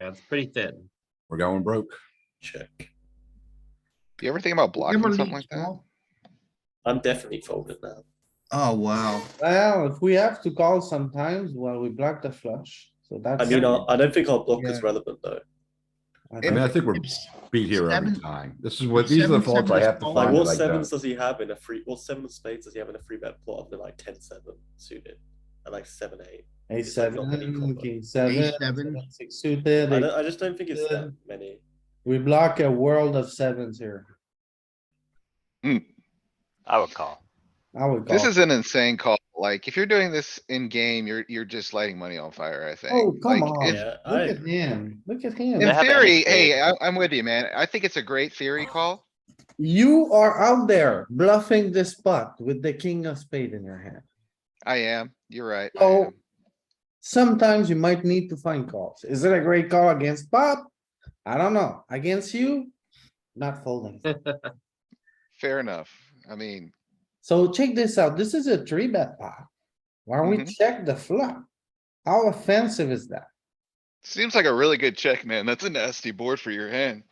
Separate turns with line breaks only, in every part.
That's pretty thin.
We're going broke.
check.
You ever think about blocking
Never
something
leave
like that?
small.
I'm definitely folded now.
Oh, wow.
Well, if we have to call sometimes, well, we block the flush, so that's.
I mean, I, I don't think our block is
Yeah.
relevant though.
I
I mean,
don't-
I think we're beat here every
Seven-
time. This is what, these are the
seven,
faults I
seven
have
is
to
all-
Like
find.
what
that I
sevens
don't.
does he have in a free, what seven of spades does he have in a free bet plot other than like ten seven suited? And like seven eight.
Ace
It's like not many
seven,
combo.
king seven,
seven.
seven, six
I,
suited,
don't, I just don't think it's that
Good.
many.
we block a world of sevens here.
Hmm. I would call.
I would call.
This is an insane call. Like, if you're doing this in game, you're, you're just lighting money on fire, I think.
Oh, come
Like,
on.
if-
Yeah, I
Look at
agree.
him, look at him.
In
have any
theory, hey,
spade.
I, I'm with you, man. I think it's a great theory call.
You are out there bluffing this spot with the king of spade in your hand.
I am. You're right. I
So-
am.
Sometimes you might need to find calls. Is it a great call against Bob? I don't know. Against you? Not folding.
Fair enough. I mean,
So check this out. This is a three bet pot. Why don't we
Mhm.
check the flop? How offensive is that?
seems like a really good check, man. That's a nasty board for your hand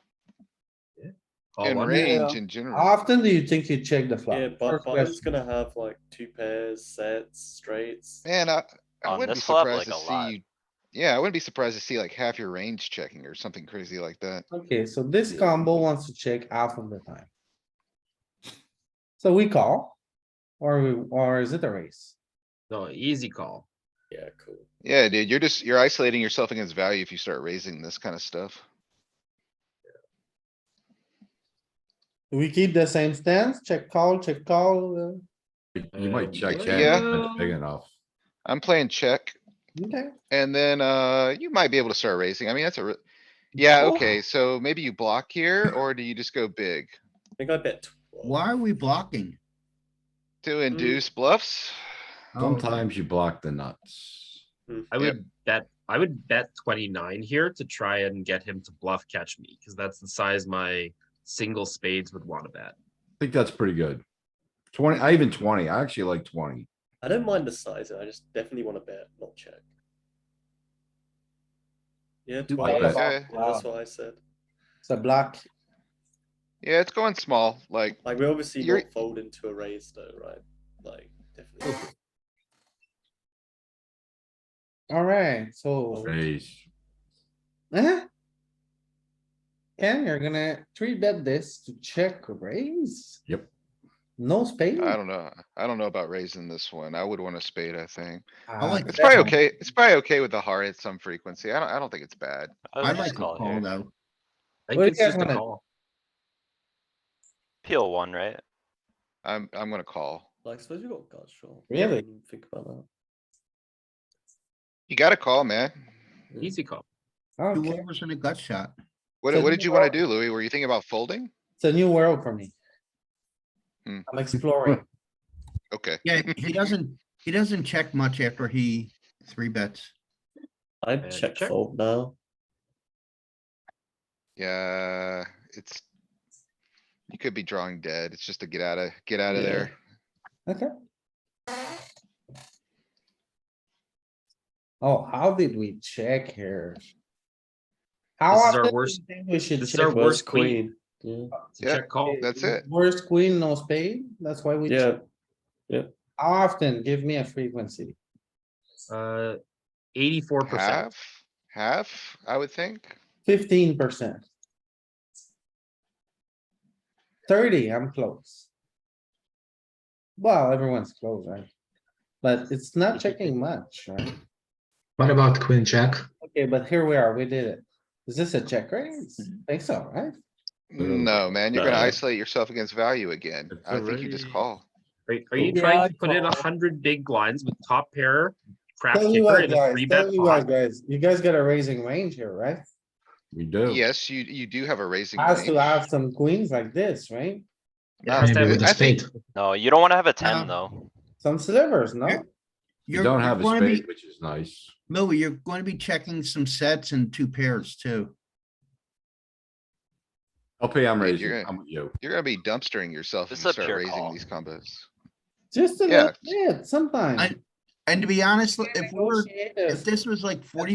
Oh,
Call
and
one.
range in general.
How often do you think you check the flop?
Yeah,
First
but Biden's
question.
gonna have like two pairs, sets, straights.
Man, I, I
On
wouldn't be
this flop,
surprised to
like, a lot.
see you. Yeah, I wouldn't be surprised to see like half your range checking or something crazy like that.
Okay, so this combo wants to check half of the time. So we call? Or we, or is it a race?
No, easy call.
Yeah, cool.
Yeah, dude, you're just, you're isolating yourself against value if you start raising this kind of stuff.
Do we keep the same stance? Check call, check call, uh,
You might check,
Yeah.
check, but it's big enough.
I'm playing check
uh, okay?
and then, uh, you might be able to start raising. I mean, that's a, re- yeah,
Oh.
okay. So maybe you block here or do you just go big
I think I bet twelve.
Why are we blocking?
to induce bluffs?
Oh.
Sometimes you block the nuts.
I
Yep.
would bet, I would bet twenty-nine here to try and get him to bluff catch me, cuz that's the size my single spades would wanna bet.
I think that's pretty good. Twenty, I even twenty, I actually like twenty.
I don't mind the size, I just definitely wanna bet, not check. Yeah,
Do
twelve.
bet.
Yeah,
Okay.
that's what I said.
It's a block.
Yeah, it's going small, like,
Like we're obviously
You're-
not folding to a raise though, right? Like definitely.
Alright, so,
Raise.
eh? Ken, you're gonna three bet this to check raise?
Yep.
No spade?
I don't know. I don't know about raising this one. I would want a spade, I think.
Ah,
like
It's probably
Definitely.
okay. It's probably okay with the heart at some frequency. I don't, I don't think it's bad.
I
I like
would just
the
call
call
here.
though.
I
What do
think
you
it's
guys
just a
wanna-
call.
Peel one, right?
I'm, I'm gonna call.
Like suppose we got gut shot.
Really?
Think about that.
You gotta call, man.
Easy call.
Two
Okay,
overs and a gut shot.
What,
So
what
you
did you wanna
are-
do, Louis? Were you thinking about folding?
it's a new world for me.
Hmm.
I'm exploring.
Okay.
Yeah, he doesn't, he doesn't check much after he three bets.
I'm
Uh,
check
check.
fold now.
Yeah, it's. You could be drawing dead. It's just to get out of, get out of
Yeah.
there.
Okay. Oh, how did we check here? How
This is our
often do
worst-
you think We should
this is our
check.
worst queen. It's a
Yeah.
Check call.
Oh, that's it.
Worst queen, no spade, that's why we. check.
Yeah,
How often? Give me a frequency.
Uh, eighty-four percent.
Half, half, I would think.
Fifteen percent. Thirty, I'm close. Well, everyone's close, right? But it's not checking much, right?
What about queen jack?
Okay, but here we are, we did it. Is this a check raise? Think so, right?
Mm.
No, man, you're gonna
No.
isolate yourself against value again.
It's
I think you just
already-
call.
Are, are you
Yeah,
trying
I'd
to put in a
call.
hundred big blinds with top pair, crap
Tell you
kicker
what,
and a
guys,
three bet
tell you what,
pot?
guys, you guys got a raising range here, right?
We do.
Yes, you, you do have a raising.
Has to
range.
have some queens like this, right?
Yeah,
Maybe
I
with a
think-
spade.
No, you don't wanna have a
Uh,
ten though.
Some slivers, no?
You
You're-
don't
you're
have a
gonna be-
spade, which is nice.
Louis, you're going to be checking some sets and two pairs too.
LP, I'm
Yeah,
raising,
you're gonna-
I'm with you.
You're gonna be dumpstering yourself if
This is
you
a
start
pure
raising
call.
these combos.
Just a
Yeah.
little bit, sometimes.
I- And to be honest, if we we're,
Negotiative.
if this was like forty